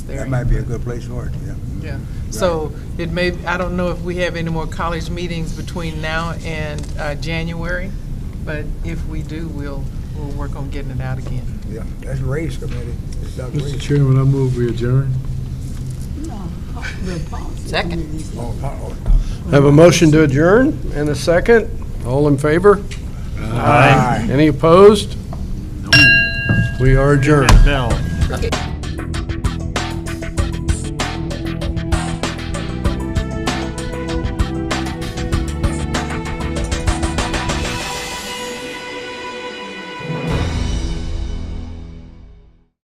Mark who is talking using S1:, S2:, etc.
S1: There
S2: That
S1: you
S2: might be a
S1: go.
S2: good place for it, yeah.
S1: Yeah, so it may, I don't know if we have any more college meetings between now and uh, January, but if we do, we'll, we'll work on getting it out again.
S2: Yeah, that's race committee. It's not
S3: Mr.
S2: race.
S3: Chairman, I move we adjourn.
S4: Second.
S2: Oh, oh,
S5: Have a motion to adjourn and a second. All in favor?
S2: Aye.
S5: Any opposed? We are adjourned.
S6: Bell.
S4: Okay.